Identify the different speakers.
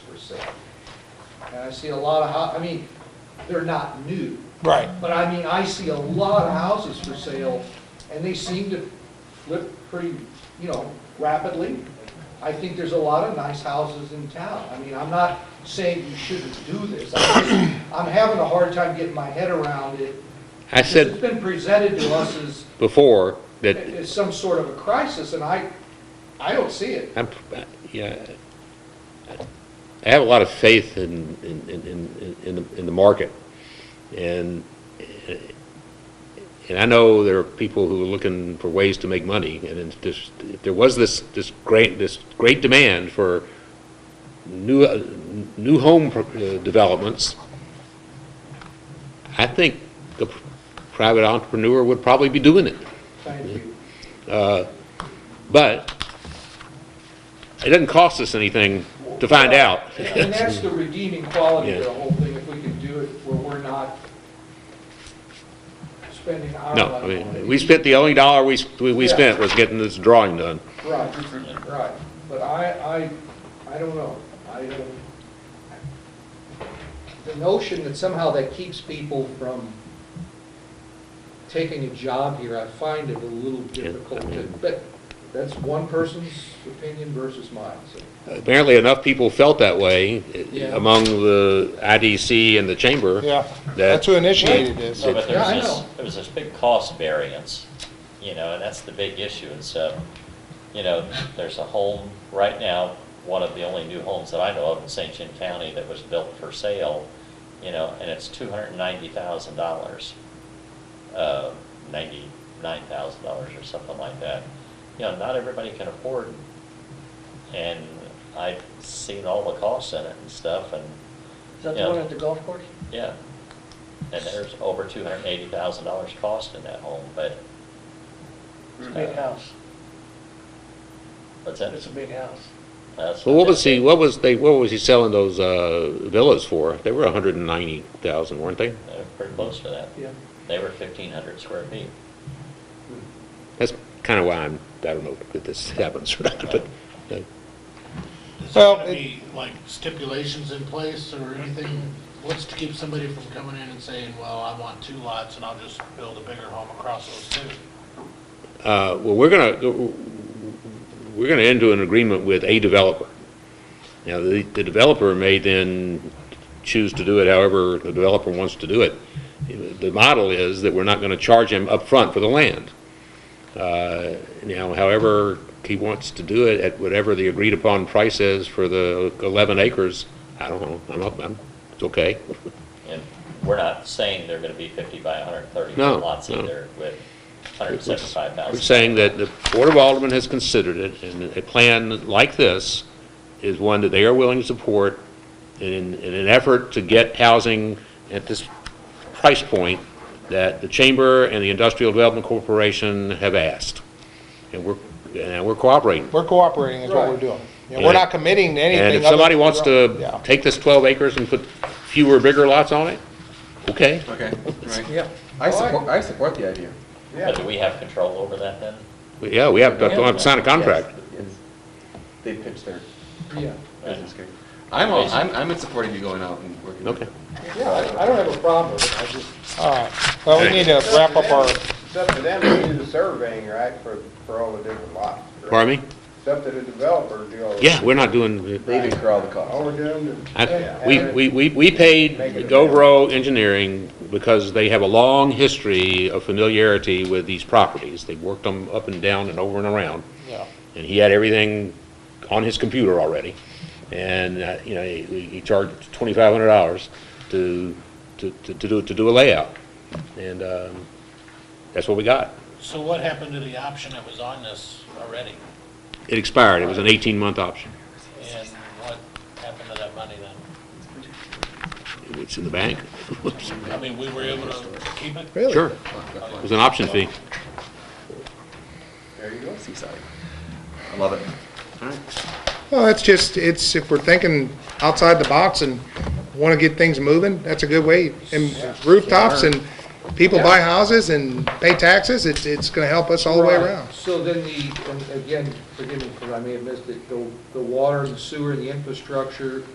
Speaker 1: say. And I see a lot of, hou- I mean, they're not new,
Speaker 2: Right.
Speaker 1: but I mean, I see a lot of houses for sale, and they seem to flip pretty, you know, rapidly. I think there's a lot of nice houses in town. I mean, I'm not saying you shouldn't do this. I'm just- I'm having a hard time getting my head around it.
Speaker 3: I
Speaker 1: It's
Speaker 3: said
Speaker 1: been presented to us as,
Speaker 3: before that,
Speaker 1: as some sort of a crisis, and I, I don't see it.
Speaker 3: I'm, yeah, I have a lot of faith in, in, in, in- in, the- in the market. And, and I know there are people who are looking for ways to make money, and it's just, there was this, this great, this great demand for new, uh, new home pro- uh, developments. I think the private entrepreneur would probably be doing it.
Speaker 1: Thank you.
Speaker 3: Uh, But it doesn't cost us anything to find out.
Speaker 1: And that's the redeeming quality of
Speaker 3: Yeah.
Speaker 1: the whole thing, if we can do it where we're not spending our
Speaker 3: No,
Speaker 1: money.
Speaker 3: I
Speaker 1: on it.
Speaker 3: mean, we spent, the only dollar we, we we spent was getting this drawing done.
Speaker 1: Right, right, but I, I, I don't know, I don't, the notion that somehow that keeps people from taking a job here, I find it a little
Speaker 3: Yeah, I
Speaker 1: difficult to,
Speaker 3: mean-
Speaker 1: but that's one person's opinion versus mine, so.
Speaker 3: Apparently enough people felt that way eh,
Speaker 1: Yeah.
Speaker 3: among the IDC and the chamber.
Speaker 2: Yeah, that's who initiated this.
Speaker 4: No, but
Speaker 1: Yeah,
Speaker 4: there's
Speaker 1: I
Speaker 4: this,
Speaker 1: know.
Speaker 4: there's this big cost variance, you know, and that's the big issue, and so, you know, there's a home right now, one of the only new homes that I know of in St. John County that was built for sale, you know, and it's two hundred and ninety thousand dollars. Uh, ninety-nine thousand dollars or something like that. You know, not everybody can afford, and I've seen all the costs in it and stuff, and,
Speaker 5: Is that
Speaker 4: Yeah.
Speaker 5: the one at the golf course?
Speaker 4: yeah. And there's over two hundred and eighty thousand dollars cost in that home, but,
Speaker 5: It's a big house.
Speaker 4: what's that?
Speaker 5: It's a big house.
Speaker 4: That's
Speaker 3: Well, what was
Speaker 4: they-
Speaker 3: he, what was they, what was he selling those uh, villas for? They were 190,000, weren't they?
Speaker 4: They're pretty close to that.
Speaker 1: Yeah.
Speaker 4: They were fifteen hundred square feet.
Speaker 3: That's kind of why I'm, I don't know if this happens or not, but uh,
Speaker 6: Is there
Speaker 2: Well,
Speaker 6: gonna
Speaker 2: it-
Speaker 6: be like stipulations in place or anything? What's to keep somebody from coming in and saying, well, I want two lots and I'll just build a bigger home across those two?
Speaker 3: Uh, Well, we're going to, we're going to enter an agreement with a developer. Now, the the developer may then choose to do it however the developer wants to do it. The model is that we're not going to charge him upfront for the land. Uh, Now, however he wants to do it, at whatever the agreed-upon price is for the 11 acres, I don't know, I'm, up- I'm, it's okay.
Speaker 4: And we're not saying they're gonna be fifty by hundred and thirty
Speaker 3: No,
Speaker 4: lots
Speaker 3: no.
Speaker 4: either with hundred and seventy-five
Speaker 3: We're
Speaker 4: thousand.
Speaker 3: saying that the Board of Aldermen has considered it, and a plan like this is one that they are willing to support in, in an effort to get housing at this price point that the Chamber and the Industrial Development Corporation have asked. And we're, and we're cooperating.
Speaker 2: We're cooperating is what we're
Speaker 1: Right.
Speaker 2: doing. You know, We're not committing to anything.
Speaker 3: And if
Speaker 2: other
Speaker 3: somebody
Speaker 2: than-
Speaker 3: wants
Speaker 2: Yeah.
Speaker 3: to take this 12 acres and put fewer, bigger lots on it, okay.
Speaker 7: Okay, right.
Speaker 5: Yeah.
Speaker 7: I support, I support the idea.
Speaker 4: But do we have control over that then?
Speaker 3: Yeah, we have, to we have to sign a contract.
Speaker 7: Yes, yes. They pitched their
Speaker 1: Yeah,
Speaker 7: business case. I'm, all- I'm, I'm in supporting you going out and working. with
Speaker 3: Okay.
Speaker 7: it.
Speaker 1: yeah, I I don't have a problem with it, I just.
Speaker 2: All right, well, we need to wrap up our,
Speaker 8: It's up to them to do the surveying, right, for, for all the different lots? correct?
Speaker 3: Pardon me?
Speaker 8: It's up to the developer to do all the...
Speaker 3: Yeah, we're not doing,
Speaker 7: They didn't all the costs.
Speaker 8: All we're doing is...
Speaker 3: I- We, we, we we paid Govro Engineering because they have a long history of familiarity with these properties. They've worked them up and down and over and around,
Speaker 2: yeah.
Speaker 3: and he had everything on his computer already. And, uh, you know, he, he charged twenty-five hundred dollars to, to, to to do, to do a layout. And, um, that's what we got.
Speaker 6: So what happened to the option that was on this already?
Speaker 3: It expired. It was an eighteen-month option.
Speaker 6: And what happened to that money then?
Speaker 3: It's in the bank.
Speaker 6: I mean, we were able to keep it?
Speaker 3: Sure. It was an option fee.
Speaker 7: There you go, seaside. I love it. All right.
Speaker 2: Well, that's just, it's, if we're thinking outside the box and want to get things moving, that's a good way. And rooftops and people buy houses and pay taxes, it's, it's going to help us all the way
Speaker 1: Right.
Speaker 2: around.
Speaker 1: So then the, and again, forgive me, because I may have missed it, the, the water and sewer, the infrastructure,